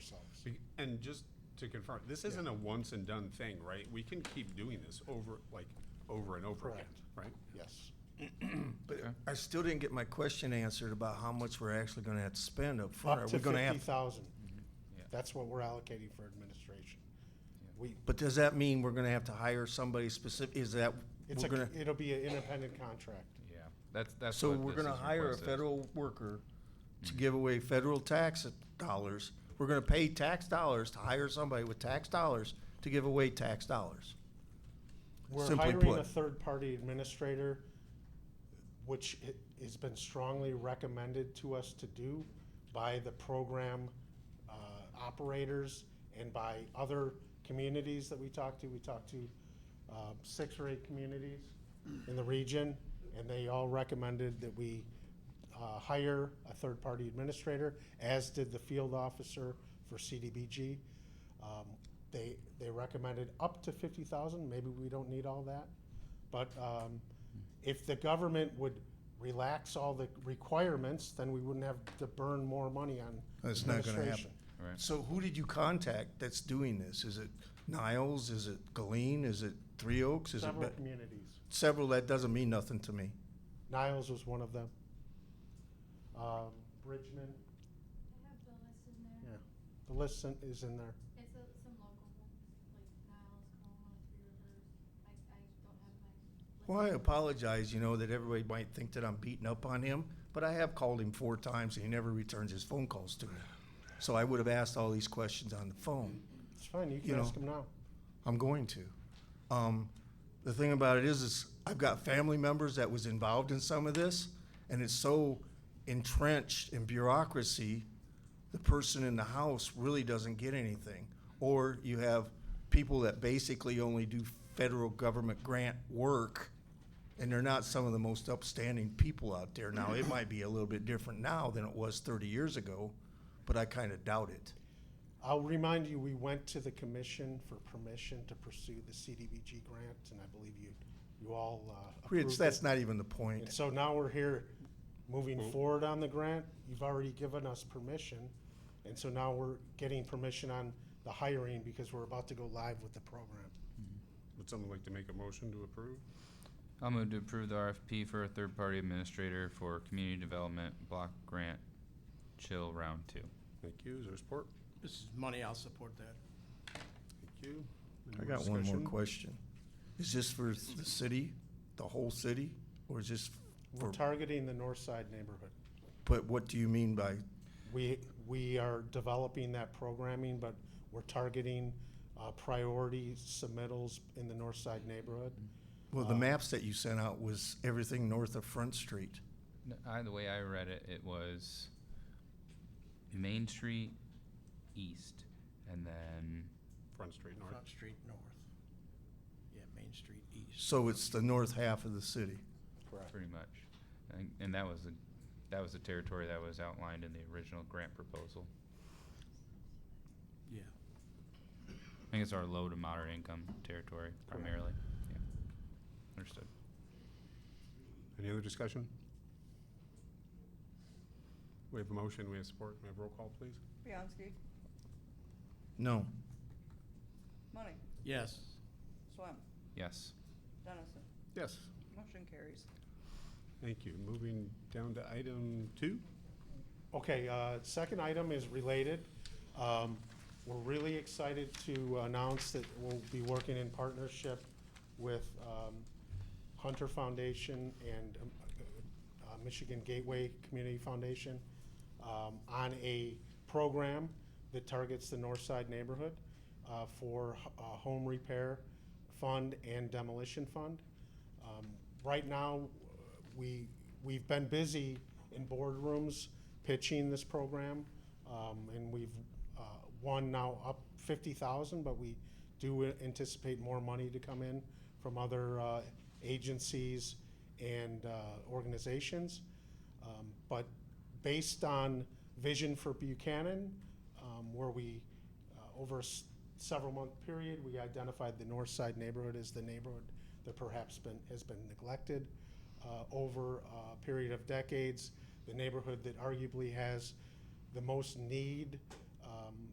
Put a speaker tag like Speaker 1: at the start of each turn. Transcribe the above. Speaker 1: ourselves.
Speaker 2: Be- And just to confirm, this isn't a once and done thing, right? We can keep doing this over, like, over and over again, right?
Speaker 1: Yes.
Speaker 3: But I still didn't get my question answered about how much we're actually gonna have to spend up front.
Speaker 1: Up
Speaker 3: Are
Speaker 1: to
Speaker 3: we gonna
Speaker 1: fifty
Speaker 3: have, Mm-hmm.
Speaker 1: thousand.
Speaker 4: Yeah.
Speaker 1: That's what we're allocating for administration. We,
Speaker 3: but does that mean we're gonna have to hire somebody specific, is that,
Speaker 1: it's
Speaker 3: we're
Speaker 1: a,
Speaker 3: gonna,
Speaker 1: it'll be an independent contract.
Speaker 4: Yeah, that's, that's.
Speaker 3: so
Speaker 4: what
Speaker 3: we're
Speaker 4: this
Speaker 3: gonna
Speaker 4: is
Speaker 3: hire a
Speaker 4: requested.
Speaker 3: federal worker to give away federal tax dollars? We're gonna pay tax dollars to hire somebody with tax dollars to give away tax dollars?
Speaker 1: We're
Speaker 3: Simply
Speaker 1: hiring a
Speaker 3: put.
Speaker 1: third-party administrator, which i- has been strongly recommended to us to do by the program uh, operators and by other communities that we talked to. We talked to um, six or eight communities in the region, and they all recommended that we uh, hire a third-party administrator, as did the field officer for CDBG. Um, They, they recommended up to fifty thousand, maybe we don't need all that. But um, if the government would relax all the requirements, then we wouldn't have to burn more money on
Speaker 3: That's not gonna happen.
Speaker 1: administration.
Speaker 4: Right,
Speaker 3: So who did you contact that's doing this? Is it Niles? Is it Galeen? Is it Three Oaks? Is it
Speaker 1: Several
Speaker 3: be-
Speaker 1: communities.
Speaker 3: several? That doesn't mean nothing to me.
Speaker 1: Niles was one of them. Um, Bridgman,
Speaker 5: I have the list in there.
Speaker 1: yeah, the list in- is in there.
Speaker 5: It's uh, some local ones, like Niles, Como, Three Rivers. I, I don't have
Speaker 3: Well,
Speaker 5: my. list.
Speaker 3: I apologize, you know, that everybody might think that I'm beating up on him, but I have called him four times and he never returns his phone calls to me. So I would have asked all these questions on the phone.
Speaker 1: It's fine, you
Speaker 3: You
Speaker 1: can
Speaker 3: know.
Speaker 1: ask them now.
Speaker 3: I'm going to. Um, the thing about it is, is I've got family members that was involved in some of this, and it's so entrenched in bureaucracy, the person in the house really doesn't get anything. Or you have people that basically only do federal government grant work, and they're not some of the most upstanding people out there. Now, it might be a little bit different now than it was 30 years ago, but I kind of doubt it.
Speaker 1: I'll remind you, we went to the commission for permission to pursue the CDBG grant, and I believe you, you all uh,
Speaker 3: Rich,
Speaker 1: approved
Speaker 3: that's
Speaker 1: it.
Speaker 3: not even the point.
Speaker 1: And so now we're here, moving forward on the grant. You've already given us permission, and so now we're getting permission on the hiring because we're about to go live with the program.
Speaker 2: Would someone like to make a motion to approve?
Speaker 4: I'm going to approve the RFP for a third-party administrator for community development block grant, chill round two.
Speaker 2: Thank you. Is there support?
Speaker 6: This is money, I'll support that.
Speaker 2: Thank you. Any
Speaker 3: I got one more
Speaker 2: discussion?
Speaker 3: question. Is this for the city, the whole city, or is this
Speaker 1: We're
Speaker 3: for,
Speaker 1: targeting the north side neighborhood.
Speaker 3: but what do you mean by,
Speaker 1: We, we are developing that programming, but we're targeting uh, priority submittals in the north side neighborhood.
Speaker 3: well, the
Speaker 1: Uh,
Speaker 3: maps that you sent out was everything north of Front Street.
Speaker 4: N- I, the way I read it, it was Main Street East, and then,
Speaker 2: Front Street North.
Speaker 6: Front Street North. Yeah, Main Street East.
Speaker 3: So it's the north half of the city.
Speaker 1: Correct.
Speaker 4: pretty much, and, and that was the, that was the territory that was outlined in the original grant proposal.
Speaker 6: Yeah.
Speaker 4: I think it's our low to moderate income territory primarily. Yeah. Understood.
Speaker 2: Any other discussion? We have a motion, we have support, we have roll call, please.
Speaker 7: Bianski,
Speaker 3: No,
Speaker 7: Money,
Speaker 6: Yes.
Speaker 7: Swam,
Speaker 4: Yes.
Speaker 7: Dennison,
Speaker 2: Yes.
Speaker 7: motion carries.
Speaker 2: Thank you. Moving down to item two.
Speaker 1: Okay, uh, second item is related. Um, We're really excited to announce that we'll be working in partnership with um, Hunter Foundation and um, uh, Michigan Gateway Community Foundation um, on a program that targets the north side neighborhood uh, for h- uh, home repair fund and demolition fund. Um, Right now, we, we've been busy in boardrooms pitching this program, um, and we've uh, won now up fifty thousand, but we do anticipate more money to come in from other uh, agencies and uh, organizations. Um, But based on Vision for Buchanan, um, where we, uh, over a s- several month period, we identified the north side neighborhood as the neighborhood that perhaps been, has been neglected uh, over a period of decades, the neighborhood that arguably has the most need um,